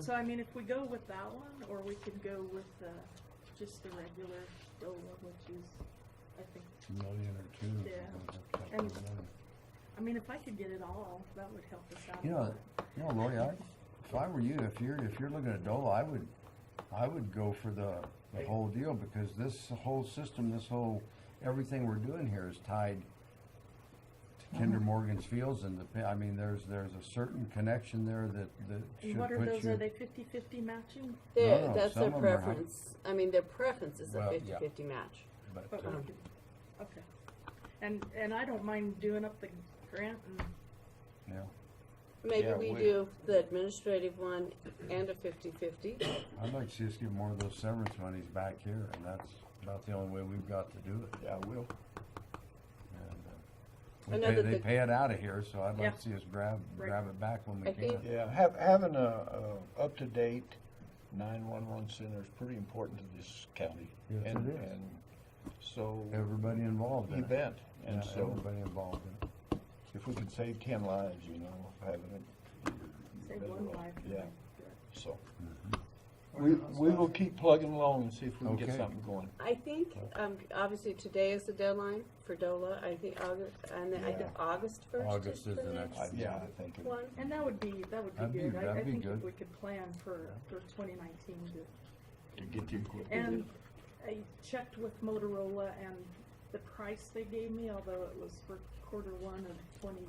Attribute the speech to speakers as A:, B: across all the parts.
A: So I mean, if we go with that one, or we could go with, uh, just the regular DOLA, which is, I think,
B: million or two. if you're
A: Yeah.
B: gonna work that
A: And-
B: together.
A: I mean, if I could get it all, that would help us out. a
B: You know,
A: lot.
B: you know, Lori, I, if I were you, if you're, if you're looking at DOLA, I would, I would go for the, the whole deal, because this whole system, this whole, everything we're doing here is tied
A: Uh-huh.
B: to Kinder Morgan's Fields and the, pa- I mean, there's, there's a certain connection there that, that
A: And
B: should
A: what are
B: put
A: those,
B: you.
A: are they fifty-fifty matching?
B: No,
C: Their,
B: no,
C: that's their
B: Oh, some of 'em are high.
C: preference, I mean, their preference is a
B: Well, yeah.
C: fifty-fifty match.
B: but,
A: But
B: uh,
A: we could, okay. And, and I don't mind doing up the grant and,
B: Yeah,
C: Maybe
D: Yeah,
C: we
D: we-
C: do the administrative one and a fifty-fifty.
B: I'd like to see us give more of those severance monies back here, and that's about the only way we've got to do it.
D: Yeah, we'll,
C: I
B: And,
C: know
B: uh, We pay,
C: that
B: they
C: the-
B: pay it out of here, so I'd
A: Yeah.
B: like to see us grab,
A: Right.
B: grab it back when we
C: I
B: can.
C: think-
D: yeah, have, having a, a up-to-date nine-one-one center is pretty important to this county.
B: Yes, it
D: And-
B: is.
D: And so,
B: Everybody involved in it.
D: event, and
B: Yeah,
D: so,
B: Everybody involved in it.
D: if we could save ten lives, you know, having it.
A: Save
D: better
A: one
D: off.
A: life.
D: Yeah, so, we, we will keep plugging along and see if we can
B: Okay.
D: get something going.
C: I think, um, obviously today is the deadline for DOLA, I think August, and then I think August first.
B: August is the next
D: I- Yeah, I think, it-
C: One,
A: And that would be, that would
B: That'd
A: be
B: be-
A: good. I, I
B: that'd be
A: think if
B: good.
A: we could plan for, for twenty nineteen to
D: to get the equipment.
A: And
B: Mm-hmm.
A: I checked with Motorola and the price they gave me, although it was for quarter one of twenty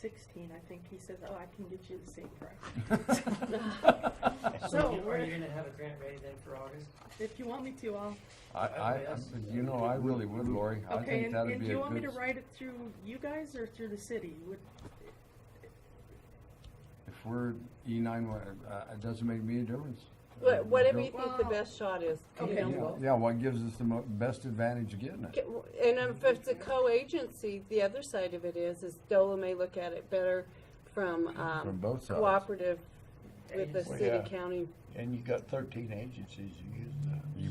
A: sixteen, I think, he said, oh, I can get you the same price.
E: So,
A: So,
E: are you gonna have a grant ready then for August?
A: if you want me to, I'll,
B: I, I, you know, I really would, Lori. I
A: okay,
B: think
A: and,
B: that'd
A: and do
B: be a
A: you want me to
B: good,
A: write it through you guys or through the city? Would,
B: if we're E nine, uh, it doesn't make me a difference.
C: Wha- whatever you
B: Don't-
C: think the
A: Well-
C: best shot is, you
A: Okay.
C: know,
B: Yeah,
C: we'll-
B: Yeah, what gives us the mo- best advantage of getting it?
C: Get- And um, if it's a co-agency, the other side of it is, is DOLA may look at it better from,
B: From
C: um,
B: both sides.
C: cooperative with the
D: Well,
C: city,
D: yeah.
C: county.
D: And you got thirteen agencies who use the
B: You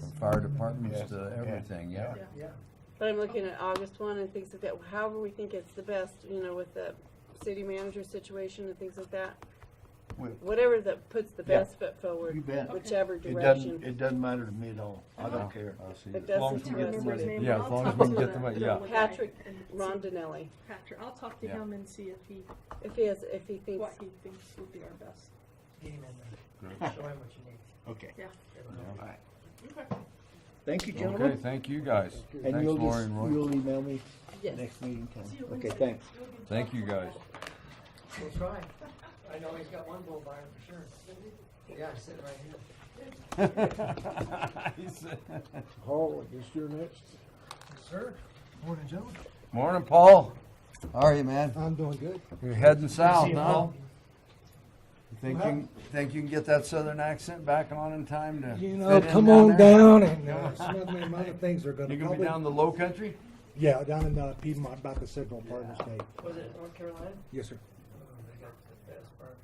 B: bet, from fire departments
D: Yes.
B: to
D: Yeah.
B: everything, yeah.
A: Yeah.
E: Yeah.
C: But I'm looking at August one and things like that, however we think it's the best, you know, with the city manager situation and things like that.
D: Well-
C: Whatever that puts the
D: Yeah.
C: best foot
D: You
C: forward,
D: bet.
C: whichever
D: It doesn't,
C: direction.
D: it doesn't matter to me at all, I
B: I'll-
D: don't care.
B: I'll Uh-huh. see
C: It
B: you.
A: I
C: doesn't
D: long as we
A: don't
C: to
D: get
C: us.
D: the
A: remember his
D: money.
A: name,
B: Yeah,
A: but
B: as
A: I'll
B: long as
A: talk
B: we
A: to
B: get the money, yeah.
A: Motorola guy
C: Patrick
A: and see-
C: Rondinelli,
A: Patrick, I'll talk to
B: Yeah.
A: him and see if he,
C: if he has, if he thinks,
A: what he thinks would be our best.
E: Get him in
B: Good.
E: there. Show him what you need.
D: Okay.
E: Let him know.
D: All right. Thank you,
B: Okay,
D: gentlemen.
B: thank you guys.
D: And
B: Thanks,
D: you'll
B: Lori
D: just,
B: and Roy.
D: you'll email me
C: yes.
D: next meeting time.
A: See you
D: Okay,
A: Wednesday.
D: thanks.
A: We'll be
B: Thank you
A: talking
B: guys.
A: about it.
E: We'll try. I know he's got one bull buyer for sure. Yeah, I'm sitting right here.
B: He said-
F: Paul, I guess you're next.
E: Sir?
F: Morning, gentlemen.
B: Morning, Paul. How are you, man?
F: I'm doing good.
B: You're heading south,
E: See you,
B: huh?
E: Paul.
B: You Think you, can- think you can get that southern accent back on in time to?
F: You
B: fit
F: know,
B: in
F: come on
B: there?
F: down and, uh, some of the amount of things are gonna
B: You gonna be
F: probably.
B: down the low country?
F: Yeah, down in uh, Piedmont, about the Signal Partners Day.
E: Was it North Carolina?
F: Yes, sir.
E: Oh, they got the best barbecue.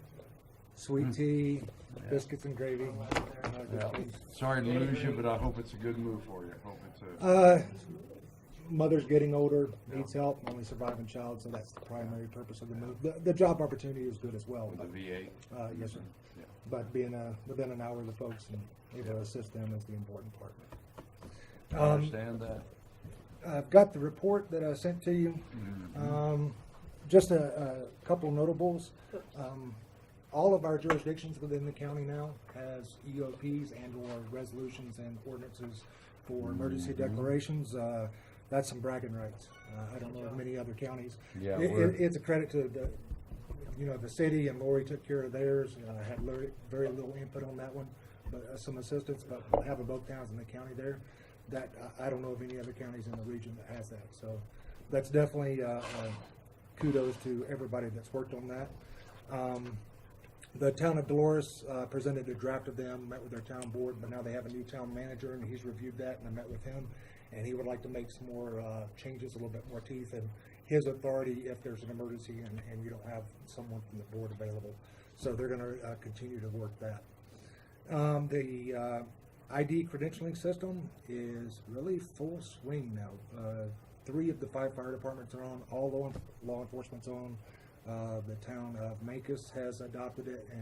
F: Sweet tea, biscuits and gravy.
E: I went there.
F: a lot of good
B: Hmm. Yeah.
F: things.
B: Sorry to lose you, but I hope it's a good move for you. Hope it's a,
F: Uh, mother's getting older, needs help, only surviving child, so that's the primary purpose of the move. The, the job opportunity is good as well,
B: with
F: but,
B: the VA.
F: uh, yes, sir.
B: Yeah.
F: But being, uh, within an hour of the folks and able to assist them is the important part. Um,
B: I understand that.
F: I've got the report that I sent to you.
B: Mm-hmm.
F: Um, Just a, a couple notables. Um, All of our jurisdictions within the county now has E EOPs and/or resolutions and ordinances for
B: Mm-hmm.
F: emergency declarations. Uh, That's some bragging rights. Uh, I don't know of many other counties.
B: Yeah,
F: It- it-
B: we're-
F: It's a credit to the, you know, the city and Lori took care of theirs. Uh, I had very, very little input on that one, but uh, some assistance, but having both towns in the county there, that, uh, I, I don't know of any other counties in the region that has that, so that's definitely, uh, uh, kudos to everybody that's worked on that. Um, the town of Dolores, uh, presented a draft of them, met with their town board, but now they have a new town manager and he's reviewed that and I met with him. And he would like to make some more, uh, changes, a little bit more teeth in his authority if there's an emergency and, and you don't have someone from the board available. So they're gonna, uh, continue to work that. Um, the, uh, ID credentialing system is really full swing now. Uh, three of the five fire departments are on, all law, law enforcement's on. Uh, the town of Mancus has adopted it and